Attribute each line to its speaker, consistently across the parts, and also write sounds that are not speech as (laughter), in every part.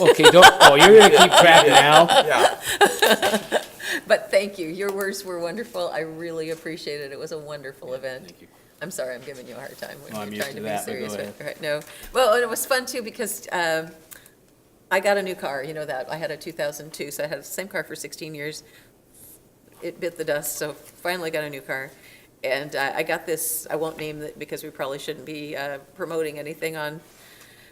Speaker 1: (laughs) Okay, don't, oh, you're gonna keep track now?
Speaker 2: Yeah,
Speaker 3: But thank you. Your words were wonderful. I really appreciate it. It was a wonderful event.
Speaker 1: Thank you.
Speaker 3: I'm sorry, I'm giving you a hard time
Speaker 1: No, I'm
Speaker 3: when you're
Speaker 1: used to
Speaker 3: trying to be
Speaker 1: that, but
Speaker 3: serious.
Speaker 1: go
Speaker 3: but- Right, no. Well, and it was fun too because um, I got a new car, you know that. I had a 2002, so I had the same car for 16 years. It bit the dust, so finally got a new car. And uh, I got this, I won't name it because we probably shouldn't be uh, promoting anything on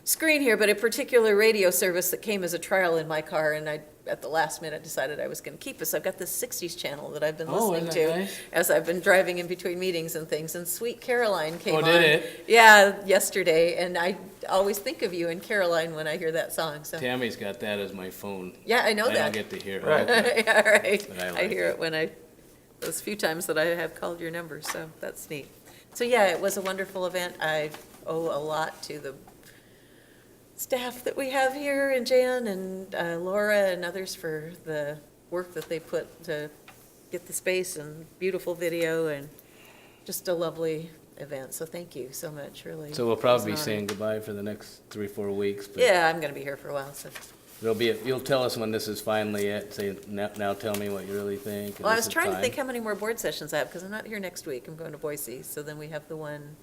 Speaker 3: screen here, but a particular radio service that came as a trial in my car, and I, at the last minute, decided I was going to keep it. So I've got this 60s channel that I've been
Speaker 1: Oh,
Speaker 3: listening
Speaker 1: isn't that
Speaker 3: to
Speaker 1: nice?
Speaker 3: as I've been driving in between meetings and things, and Sweet Caroline came
Speaker 1: Oh,
Speaker 3: on.
Speaker 1: did it?
Speaker 3: Yeah, yesterday, and I always think of you and Caroline when I hear that song, so,
Speaker 1: Tammy's got that as my phone.
Speaker 3: yeah, I know
Speaker 1: I don't
Speaker 3: that.
Speaker 1: get to hear
Speaker 2: Right.
Speaker 1: it.
Speaker 3: (laughs) Yeah, right.
Speaker 1: But I
Speaker 3: I
Speaker 1: like
Speaker 3: hear
Speaker 1: it.
Speaker 3: it when I, those few times that I have called your number, so that's neat. So, yeah, it was a wonderful event. I owe a lot to the staff that we have here, and Jan and uh, Laura and others for the work that they put to get the space and beautiful video and just a lovely event. So thank you so much, really.
Speaker 1: So we'll probably be
Speaker 3: It's an honor.
Speaker 1: saying goodbye for the next three, four weeks, but
Speaker 3: Yeah, I'm going to be here for a while, so.
Speaker 1: there'll be, a- you'll tell us when this is finally it, say, now, now tell me what you really think. and
Speaker 3: Well, I
Speaker 1: this
Speaker 3: was
Speaker 1: is
Speaker 3: trying to
Speaker 1: fine."
Speaker 3: think how many more board sessions I have, because I'm not here next week, I'm going to Boise, so then we have the one,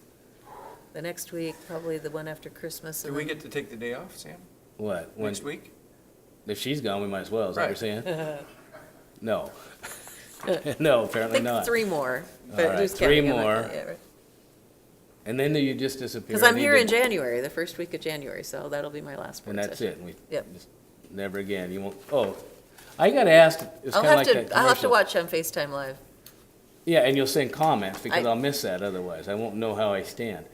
Speaker 3: the next week, probably the one after Christmas,
Speaker 2: do
Speaker 3: and
Speaker 2: we
Speaker 3: then,
Speaker 2: get to take the day off, Sam,
Speaker 1: What, when,
Speaker 2: next week?
Speaker 1: if she's gone, we might as well, is that what you're
Speaker 2: Right.
Speaker 1: saying?
Speaker 3: (laughs)
Speaker 1: No. (laughs) No,
Speaker 3: I
Speaker 1: apparently
Speaker 3: think
Speaker 1: not.
Speaker 3: three more.
Speaker 1: All
Speaker 3: but
Speaker 1: right,
Speaker 3: who's
Speaker 1: three
Speaker 3: counting? I'm not-
Speaker 1: more.
Speaker 3: yeah, right.
Speaker 1: And then you just disappear.
Speaker 3: Because
Speaker 1: I
Speaker 3: I'm
Speaker 1: need
Speaker 3: here
Speaker 1: to-
Speaker 3: in January, the first week of January, so that'll be my last board
Speaker 1: And
Speaker 3: session.
Speaker 1: that's it, and we,
Speaker 3: Yep.
Speaker 1: just never again, you won't, oh, I got asked, it's
Speaker 3: I'll
Speaker 1: kinda like
Speaker 3: have
Speaker 1: that
Speaker 3: to, I'll have to
Speaker 1: commercial.
Speaker 3: watch on FaceTime Live.
Speaker 1: Yeah, and you'll send comments, because
Speaker 3: I-
Speaker 1: I'll miss that otherwise, I won't know how I stand.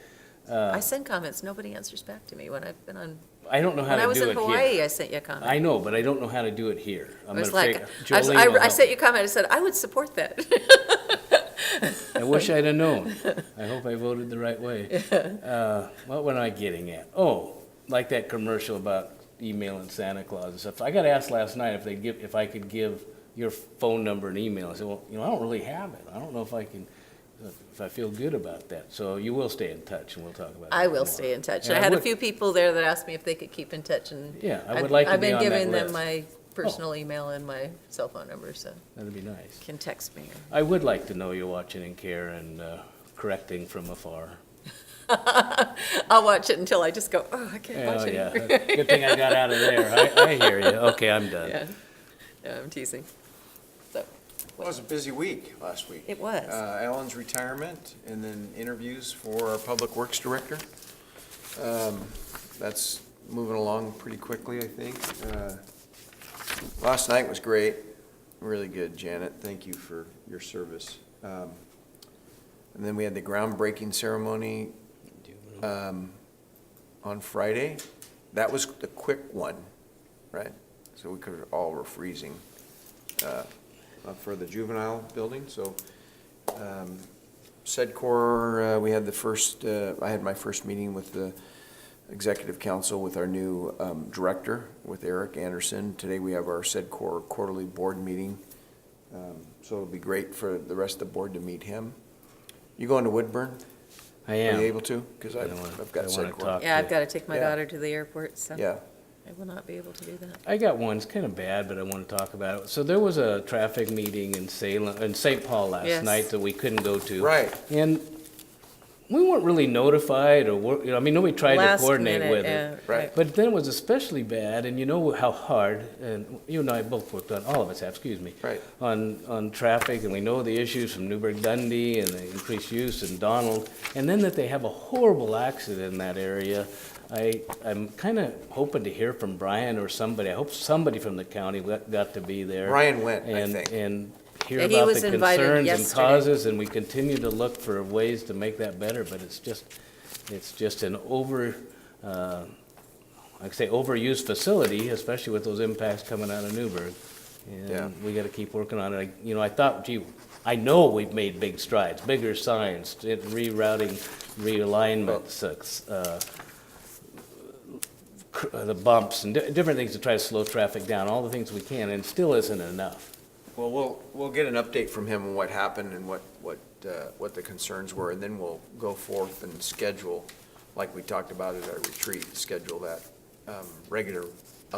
Speaker 1: Uh.
Speaker 3: I send comments, nobody answers back to me when I've been on,
Speaker 1: I don't know how
Speaker 3: when I
Speaker 1: to
Speaker 3: was
Speaker 1: do
Speaker 3: in
Speaker 1: it here.
Speaker 3: Hawaii, I sent you a comment.
Speaker 1: I know, but I don't know how to do it here.
Speaker 3: I
Speaker 1: I'm
Speaker 3: was
Speaker 1: gonna
Speaker 3: like,
Speaker 1: figure-
Speaker 3: I was-
Speaker 1: Jolene
Speaker 3: I
Speaker 1: will
Speaker 3: I
Speaker 1: help
Speaker 3: sent
Speaker 1: me.
Speaker 3: you a comment, I said, I would support that.
Speaker 1: I wish I'd have known. I hope I voted the right way. Uh, What were I getting at? Oh, like that commercial about emailing Santa Claus and stuff. I got asked last night if they'd give, if I could give your phone number and email. I said, well, you know, I don't really have it. I don't know if I can, if I feel good about that. So you will stay in touch and we'll talk about it.
Speaker 3: (laughs) I will stay in touch.
Speaker 1: And
Speaker 3: I
Speaker 1: I
Speaker 3: had a
Speaker 1: would-
Speaker 3: few people there that asked me if they could keep in touch and.
Speaker 1: Yeah, I
Speaker 3: I've-
Speaker 1: would like to be on
Speaker 3: I've been
Speaker 1: that
Speaker 3: giving them
Speaker 1: list. Oh.
Speaker 3: my personal email and my cell phone number, so
Speaker 1: That'd be nice.
Speaker 3: can text me. or-
Speaker 1: I would like to know you're watching in care and uh, correcting from afar.
Speaker 3: I'll watch it until I just go, oh, I can't
Speaker 1: Oh,
Speaker 3: watch
Speaker 1: yeah.
Speaker 3: it.
Speaker 1: Good thing I got out of there. I, I hear you. Okay, I'm done.
Speaker 3: Yeah, (laughs) Yeah, I'm teasing.
Speaker 2: It was a busy week last week.
Speaker 3: It was.
Speaker 2: Uh, Alan's retirement, and then interviews for our Public Works Director. Um, That's moving along pretty quickly, I think. Uh, Last night was great, really good, Janet, thank you for your service. Um, And then we had the groundbreaking ceremony um, on Friday. That was the quick one, right? So we could, all were freezing uh, up for the juvenile building, so. um, SEDCOR, uh, we had the first, uh, I had my first meeting with the executive council with our new um, director, with Eric Anderson. Today, we have our SEDCOR quarterly board meeting, Um, so it'll be great for the rest of the board to meet him. You going to Woodburn?
Speaker 1: I
Speaker 2: Are you
Speaker 1: am.
Speaker 2: able to? Because
Speaker 1: I
Speaker 2: I've
Speaker 1: wanna-
Speaker 2: I've got
Speaker 1: I wanna
Speaker 2: SEDCOR.
Speaker 1: talk.
Speaker 3: Yeah, I've
Speaker 1: Okay.
Speaker 3: got to take my
Speaker 2: Yeah.
Speaker 3: daughter to the airport, so
Speaker 2: Yeah,
Speaker 3: I will not be able to do that.
Speaker 1: I got one, it's kind of bad, but I want to talk about it. So there was a traffic meeting in Salem, in St. Paul last
Speaker 3: Yes.
Speaker 1: night that we couldn't go to.
Speaker 2: right.
Speaker 1: And we weren't really notified or, wor- you know, I mean, nobody tried to
Speaker 3: Last
Speaker 1: coordinate
Speaker 3: minute,
Speaker 1: with
Speaker 3: yeah,
Speaker 1: it.
Speaker 2: Right.
Speaker 1: But then it was especially bad, and you know how hard, and you and I both worked on, all of us have, excuse me.
Speaker 2: Right.
Speaker 1: On, on traffic, and we know the issues from Newburgh Dundee and the increased use and Donald, and then that they have a horrible accident in that area. I, I'm kind of hoping to hear from Brian or somebody, I hope somebody from the county got got to be there.
Speaker 2: Brian went, I
Speaker 1: And-
Speaker 2: think.
Speaker 1: And hear
Speaker 3: Yeah, he
Speaker 1: about
Speaker 3: was
Speaker 1: the
Speaker 3: invited
Speaker 1: concerns and
Speaker 3: yesterday.
Speaker 1: causes, and we continue to look for ways to make that better, but it's just, it's just an over, uh, like I say, overused facility, especially with those impacts coming out of Newburgh.
Speaker 2: Yeah.
Speaker 1: And we gotta keep working on it. I- You know, I thought, gee, I know we've made big strides, bigger signs, it- rerouting, realignments, uh, cr- uh, the bumps and di- different things to try to slow traffic down, all the things we can, and still isn't enough.
Speaker 2: Well, we'll, we'll get an update from him on what happened and what, what, uh, what the concerns were, and then we'll go forth and schedule, like we talked about at our retreat, schedule that um, regular